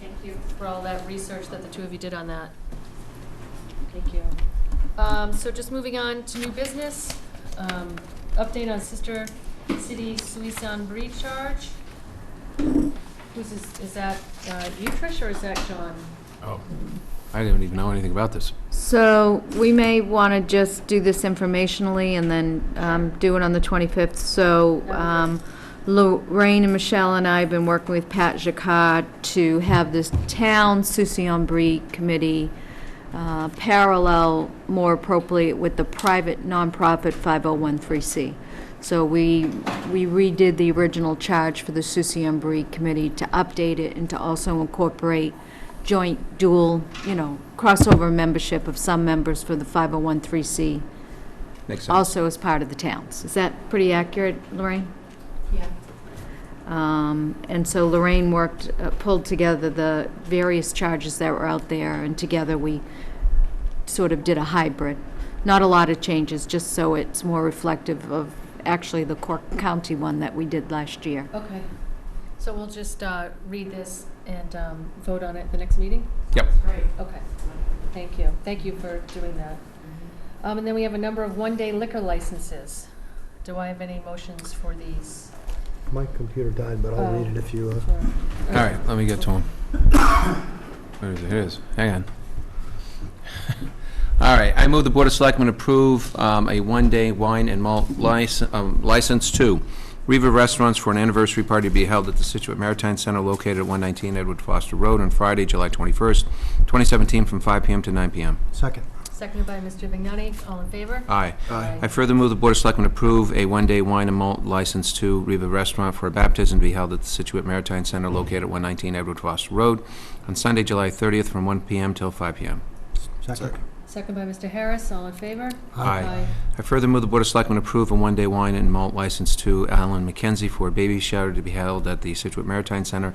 Thank you for all that research that the two of you did on that. Thank you. Um, So just moving on to new business, um, update on Sister City Suisun Breed Charge. Who's, is is that uh, you, Trish, or is that John? Oh, I didn't even know anything about this. So we may want to just do this informationally and then um, do it on the 25th. So um, Lorraine and Michelle and I have been working with Pat Jacquard to have this town Soucy Brie committee uh, parallel more appropriately with the private nonprofit 5013C. So we we redid the original charge for the Soucy Brie committee to update it and to also incorporate joint dual, you know, crossover membership of some members for the 5013C, Makes sense. also as part of the towns. Is that pretty accurate, Lorraine? Yeah. Um, And so Lorraine worked, uh, pulled together the various charges that were out there, and together we sort of did a hybrid. Not a lot of changes, just so it's more reflective of actually the Cork County one that we did last year. Okay. So we'll just uh, read this and um, vote on it at the next meeting? Yep. Great. Okay, thank you. Thank you for doing that. Um, And then we have a number of one-day liquor licenses. Do I have any motions for these? My computer died, but I'll read it if you, uh, For- All right, let me get to him. Where is it? Here it is. Hang on. All right, I move the Board of Selectmen approve um, a one-day wine and malt license, license to Riva Restaurants for an anniversary party to be held at the Situate Maritime Center located at 119 Edward Foster Road on Friday, July 21st, 2017, from 5 PM to 9 PM. second. Seconded by Mr. Vignani, all in favor? Aye. Aye. I further move the Board of Selectmen approve a one-day wine and malt license to Riva Restaurant for a baptism to be held at the Situate Maritime Center located at 119 Edward Foster Road on Sunday, July 30th, from 1 PM till 5 PM. Second. Seconded by Mr. Harris, all in favor? Aye. I further move the Board of Selectmen approve a one-day wine and malt license to Alan McKenzie for a baby shower to be held at the Situate Maritime Center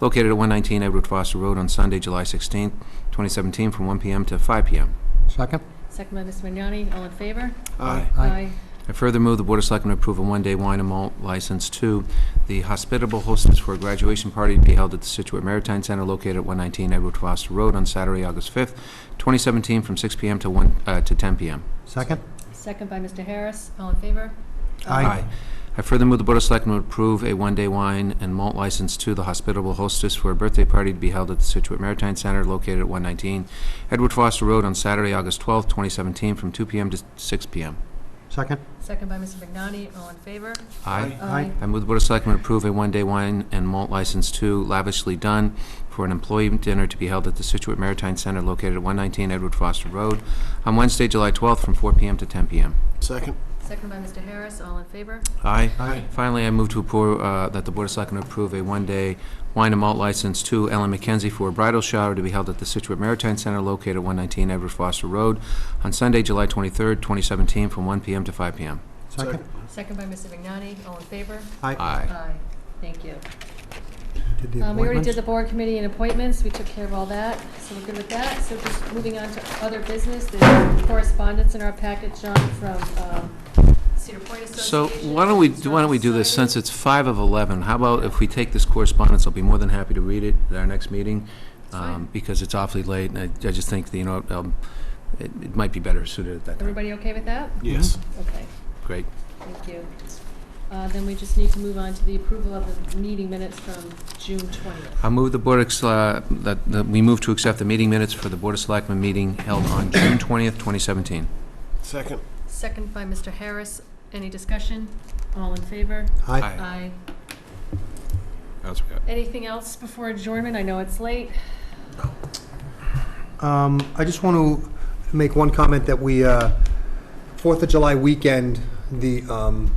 located at 119 Edward Foster Road on Sunday, July 16th, 2017, from 1 PM to 5 PM. Second? Seconded by Mr. Vignani, all in favor? Aye. I further move the Board of Selectmen approve a one-day wine and malt license to the hospitable hostess for a graduation party to be held at the Situate Maritime Center located at 119 Edward Foster Road on Saturday, August 5th, 2017, from 6 PM to 1, uh, to 10 PM. Second? Seconded by Mr. Harris, all in favor? I further move the Board of Selectmen approve a one-day wine and malt license to the hospitable hostess for a birthday party to be held at the Situate Maritime Center located at 119 Edward Foster Road on Saturday, August 12th, 2017, from 2 PM to 6 PM. Second? Seconded by Mr. Vignani, all in favor? Aye. Aye. I move the Board of Selectmen approve a one-day wine and malt license to Lavishly Done for an employee dinner to be held at the Situate Maritime Center located at 119 Edward Foster Road on Wednesday, July 12th, from 4 PM to 10 PM. Second. Seconded by Mr. Harris, all in favor? Aye. Aye. Finally, I move to approve, uh, that the Board of Selectmen approve a one-day wine and malt license to Ellen McKenzie for a bridal shower to be held at the Situate Maritime Center located at 119 Edward Foster Road on Sunday, July 23rd, 2017, from 1 PM to 5 PM. Second? Seconded by Mr. Vignani, all in favor? Aye. Aye. Thank you. Did the Um, we already did appointments? the board committee and appointments, we took care of all that, so we're good with that. So just moving on to other business, there's correspondence in our packet, John, from, um, Cedar Point So Association. why don't we, why don't we do this, since it's five of 11, how about if we take this correspondence, I'll be more than happy to read it at our next meeting, fine. um, because it's awfully late, and I I just think, that, you know, um, it it might be better suited at that time. Everybody okay with that? Yes. Okay, Great. thank you. Uh, then we just need to move on to the approval of the meeting minutes from June twentieth. I'll move the Board, ex- uh, that that we move to accept the meeting minutes for the Board of Selectmen meeting held on June 20th, 2017. Second. Second by Mr. Harris, any discussion? All in favor? Aye. Aye. Anything else before adjournment? I know it's late. Um, I just want to make one comment that we, uh, Fourth of July weekend, the, um,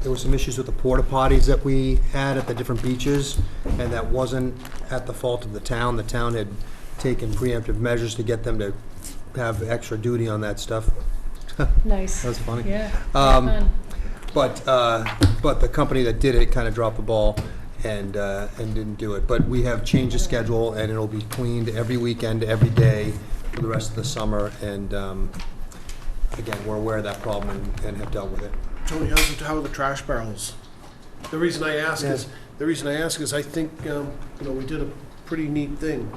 there were some issues with the porta potties that we had at the different beaches, and that wasn't at the fault of the town. The town had taken preemptive measures to get them to have extra duty on that stuff. Nice. That was funny. Yeah. Um, fun. But, uh, but the company that did it kind of dropped the ball and, uh, and didn't do it. But we have changed the schedule, and it'll be cleaned every weekend, every day for the rest of the summer. And um, again, we're aware of that problem and- and have dealt with it. Tony, how's, the- how are the trash barrels? The reason I ask is, Yeah. the reason I ask is I think, um, you know, we did a pretty neat thing.